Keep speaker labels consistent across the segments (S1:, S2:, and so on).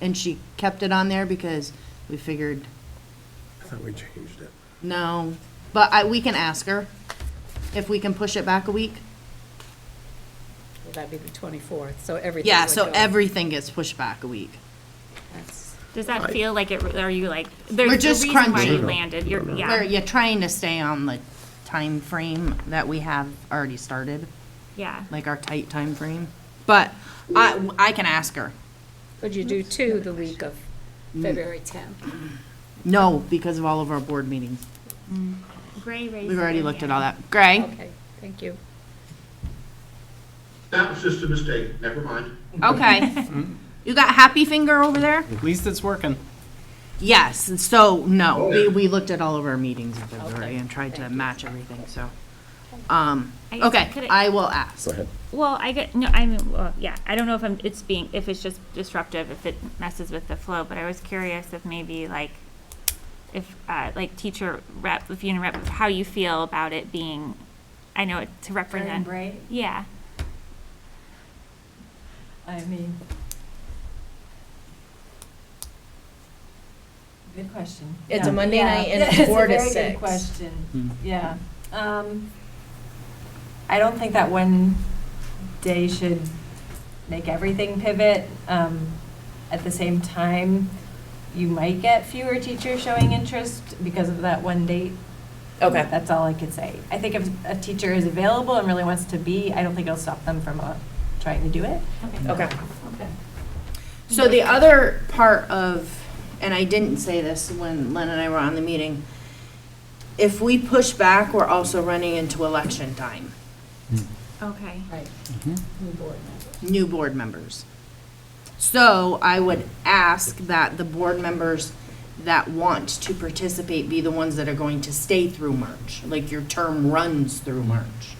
S1: and she kept it on there because we figured,
S2: I thought we changed it.
S1: no, but I, we can ask her if we can push it back a week.
S3: Well, that'd be the 24th, so everything.
S1: Yeah,
S3: would
S1: so
S3: go.
S1: everything gets pushed back a week.
S3: That's-
S4: Does that
S2: I-
S4: feel like it, are you like, there's
S1: We're
S4: a
S1: just
S4: reason why you
S1: crunching.
S4: landed, you're,
S1: Where
S4: yeah,
S1: you're trying to stay on the time frame that we have already started,
S4: yeah.
S1: like our tight time frame. But I, I can ask her.
S3: Could you do two the week of February 10th?
S1: No, because of all of our board meetings.
S4: Gray raised.
S1: We've
S4: her
S1: already looked at all
S4: hand.
S1: that. Gray?
S3: Okay, thank you.
S5: That was just a mistake, never mind.
S1: Okay. You got happy finger over there?
S6: At least it's working.
S1: Yes, and so, no, we, we looked at all of our meetings in February
S3: Okay,
S1: and tried to
S3: thank you.
S1: match everything, so. Um,
S4: I guess I
S1: okay,
S4: could've-
S1: I will ask.
S2: ahead.
S4: Well, I get, no, I mean, well, yeah, I don't know if I'm, it's being, if it's just disruptive, if it messes with the flow, but I was curious if maybe like, if, uh, like teacher rep, if you rep, how you feel about it being, I know it to represent.
S7: Right,
S4: Yeah,
S7: I mean. Good question.
S8: It's a
S7: Yeah.
S8: Monday
S7: Yeah.
S8: night and
S7: Yeah,
S8: it's four to
S7: a very
S8: six.
S7: good question, yeah. Um, I don't think that one day should make everything pivot. Um, At the same time, you might get fewer teachers showing interest because of that one date.
S8: Okay.
S7: That's all I could say. I think if a teacher is available and really wants to be, I don't think it'll stop them from uh, trying to do it.
S8: Okay.
S1: So the other part of, and I didn't say this when Len and I were on the meeting, if we push back, we're also running into election time, Mm-hmm.
S4: okay.
S3: Right. New board member.
S1: new board members. So I would ask that the board members that want to participate be the ones that are going to stay through March, like your term runs through March.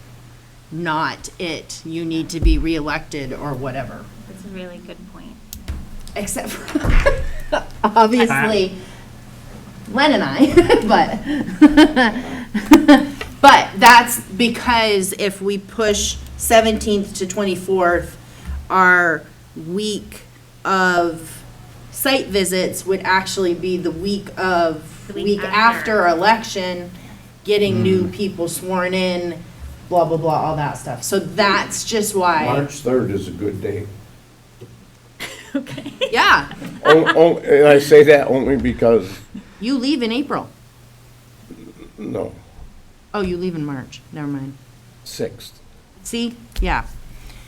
S1: Not it, you need to be reelected or whatever.
S4: That's a really good point.
S1: except for obviously Len and I, but but that's because if we push 17th to 24th, our week of site visits would actually be the week of
S4: The week
S1: week
S4: after.
S1: after election, getting new people sworn in, blah blah blah, all that stuff. So that's just why.
S2: March third is a good day.
S1: Yeah,
S2: On- on- Oh, And I say that only because,
S1: you leave in April.
S2: no,
S1: Oh, you leave in March. Never mind.
S2: sixth.
S1: See? Yeah.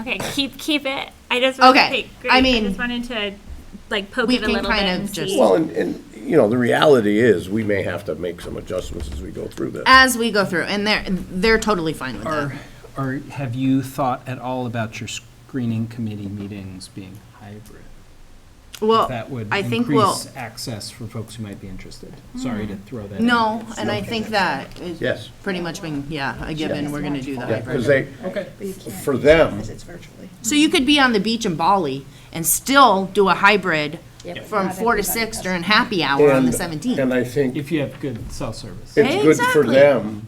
S4: Okay, keep, keep it, I just wanted to
S1: Okay,
S4: take,
S1: I
S4: I
S1: mean,
S4: just wanted to like poke
S1: we
S4: it a
S1: can
S4: little bit
S1: kind of
S4: and
S1: just-
S4: see.
S2: Well, and, and, you know, the reality is, we may have to make some adjustments as we go through this.
S1: as we go through, and they're they're totally fine with
S6: Or,
S1: that.
S6: or have you thought at all about your screening committee meetings being hybrid?
S1: Well,
S6: If That would
S1: I think we'll Mm.
S6: increase access for folks who might be interested. Sorry to throw that in.
S1: no, and I think that is
S2: Yes.
S1: pretty much been yeah a given. We're going to do the
S2: Yeah,
S1: hybrid.
S2: because they, for them,
S1: So you could be on the beach in Bali and still do a hybrid
S3: Yep.
S1: from
S3: Not
S1: four to
S3: everybody
S1: six
S3: does.
S1: during happy hour on the
S2: and, and
S1: seventeenth.
S2: I think
S6: If you have good cell service.
S2: it's good for
S1: Exactly.
S2: them,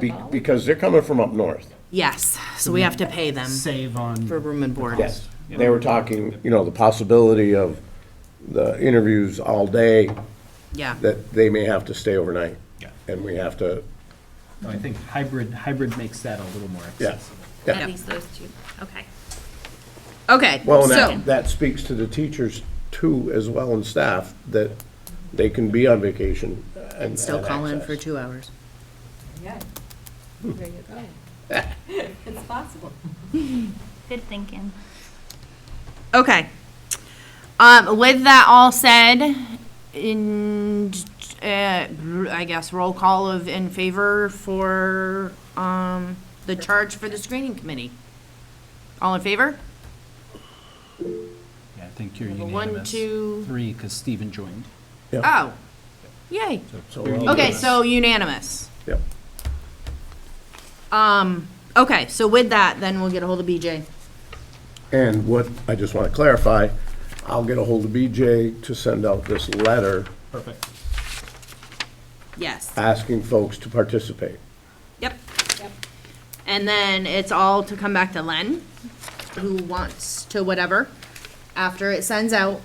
S2: be- because they're coming from up north.
S1: Yes, so we have to pay them
S6: Save on.
S1: Um, for room and board.
S2: Yes, they were talking, you know, the possibility of the interviews all day,
S1: Yeah.
S2: that they may have to stay overnight.
S6: Yeah.
S2: And we have to,
S6: No, I think hybrid, hybrid makes that a little more
S2: yeah,
S6: accessible.
S2: yeah.
S4: At least those two, okay.
S1: Okay.
S2: Well, and
S1: so
S2: that, that speaks to the teachers too, as well, and staff, that they can be on vacation and.
S1: still
S2: and
S1: call in for
S2: access.
S1: two hours.
S7: Yeah,
S3: There you go.
S7: it's possible.
S4: Good thinking.
S1: Okay. Um, with that all said, in, uh, I guess roll call of in favor for, um, the charge for the screening committee. All in favor?
S6: Yeah, I think you're
S1: Number
S6: unanimous.
S1: one, two-
S6: Three, because Stephen joined.
S1: Oh, yay.
S2: So
S6: You're
S2: we'll-
S1: Okay, so unanimous.
S2: Yep.
S1: Um, okay, so with that, then we'll get a hold of BJ.
S2: And what, I just want to clarify, I'll get a hold of BJ to send out this letter
S6: Perfect.
S1: Yes.
S2: asking folks to participate.
S1: Yep. And then it's all to come back to Len, who wants to whatever, after it sends out.